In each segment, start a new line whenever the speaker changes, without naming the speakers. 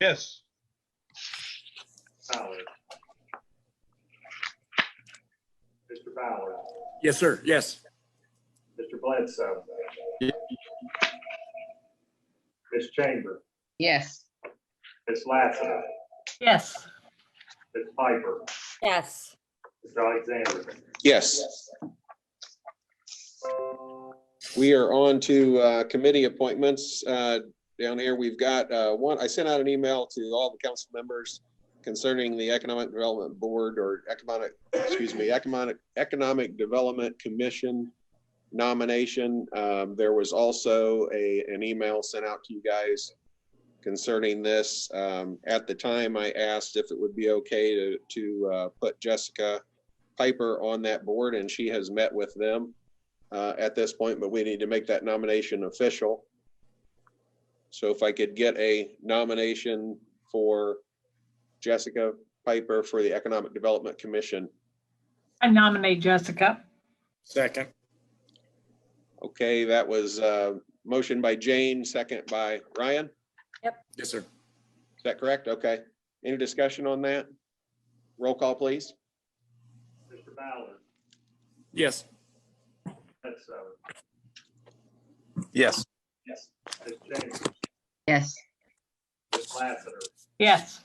Yes.
Ballard. Mr. Ballard.
Yes, sir. Yes.
Mr. Bledsoe. Ms. Chamber.
Yes.
Ms. Lassiter.
Yes.
Ms. Piper.
yes,
Mr. Alexander.
Yes. We are on to uh, committee appointments. Uh, Down here, we've got uh, one, I sent out an email to all the council members concerning the Economic Development Board or Economic, excuse me, Economic, Economic Development Commission nomination. Um, There was also a, an email sent out to you guys concerning this. Um, At the time, I asked if it would be okay to, to uh, put Jessica Piper on that board, and she has met with them uh, at this point, but we need to make that nomination official. So if I could get a nomination for Jessica Piper for the Economic Development Commission.
I nominate Jessica.
Second.
Okay, that was uh motion by Jane, second by Ryan. Is
Yes, sir.
that correct? Okay. Any discussion on that? Roll call, please.
Mr. Ballard.
Yes.
Bledsoe.
Yes.
Yes. Ms. Chambers.
Yes.
Ms. Lassiter.
Yes,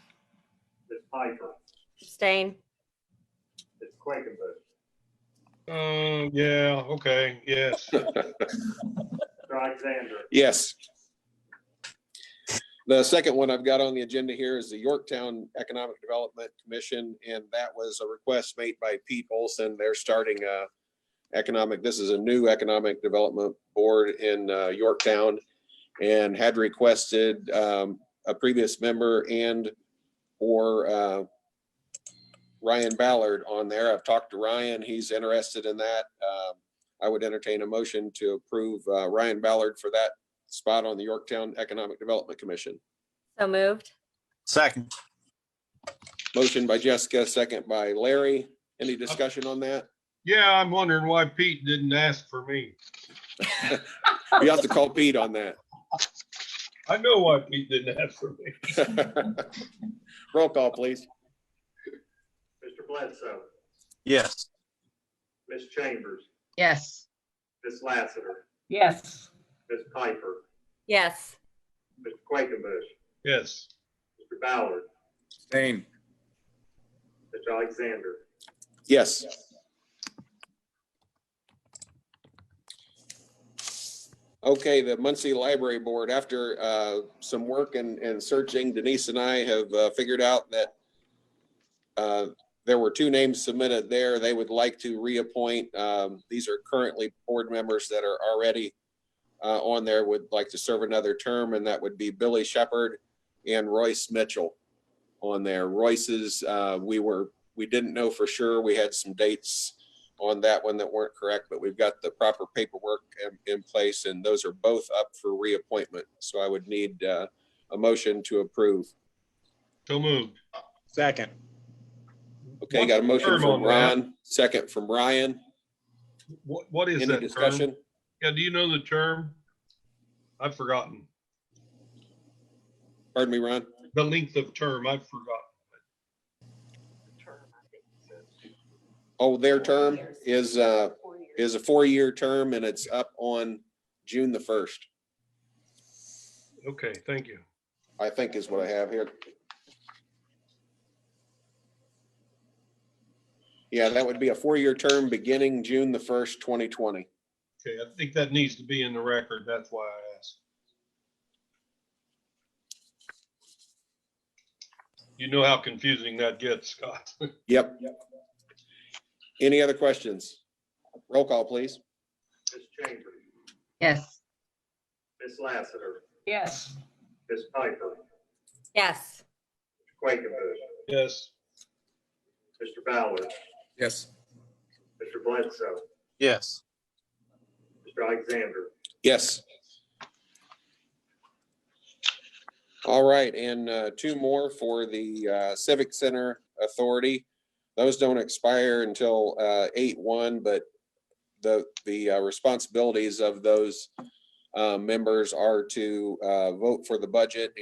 Ms. Piper.
abstain,
Ms. Quakenbush.
Um, yeah, okay, yes.
Mr. Alexander.
Yes. The second one I've got on the agenda here is the Yorktown Economic Development Commission, and that was a request made by Pete Olson. They're starting a economic, this is a new economic development board in uh, Yorktown and had requested um, a previous member and or uh, Ryan Ballard on there. I've talked to Ryan. He's interested in that. Um, I would entertain a motion to approve uh, Ryan Ballard for that spot on the Yorktown Economic Development Commission.
so moved,
Second,
Motion by Jessica, second by Larry. Any discussion on that?
Yeah, I'm wondering why Pete didn't ask for me.
You have to call Pete on
I know why Pete didn't ask for me.
that. Roll call, please.
Mr. Bledsoe.
yes,
Ms. Chambers.
Yes.
Ms. Lassiter.
yes,
Ms. Piper.
yes,
Mr. Quakenbush.
Yes,
Mr. Ballard.
Same.
Mr. Alexander.
Yes. Okay, the Muncie Library Board, after uh, some work and, and searching, Denise and I have uh, figured out that uh, there were two names submitted there. They would like to reappoint. um, These are currently board members that are already uh, on there, would like to serve another term, and that would be Billy Shepherd and Royce Mitchell on there. Royce's, uh, we were we didn't know for sure. We had some dates on that one that weren't correct, but we've got the proper paperwork in, in place and those are both up for reappointment. So I would need uh, a motion to approve.
so moved.
Second.
Okay, got a motion
Term on
from
that.
Ron, second from Ryan.
What, what is
Any
that term?
discussion?
Yeah, do you know the term? I've forgotten.
Pardon me, Ron?
The length of term, I've forgotten.
Oh, their term is, uh, is a four-year term and it's up on June the first,
Okay, thank you.
I think is what I have here. Yeah, that would be a four-year term beginning June the first, twenty twenty.
Okay, I think that needs to be in the record. That's why I asked. You know how confusing that gets, Scott.
Yep. Any other questions? Roll call, please.
Ms. Chambers.
Yes.
Ms. Lassiter.
yes,
Ms. Piper.
yes,
Quakenbush.
Yes,
Mr. Ballard.
Yes.
Mr. Bledsoe.
yes,
Mr. Alexander.
Yes. All right, and uh, two more for the uh, Civic Center Authority. Those don't expire until uh, eight one, but the, the uh, responsibilities of those uh, members are to uh, vote for the budget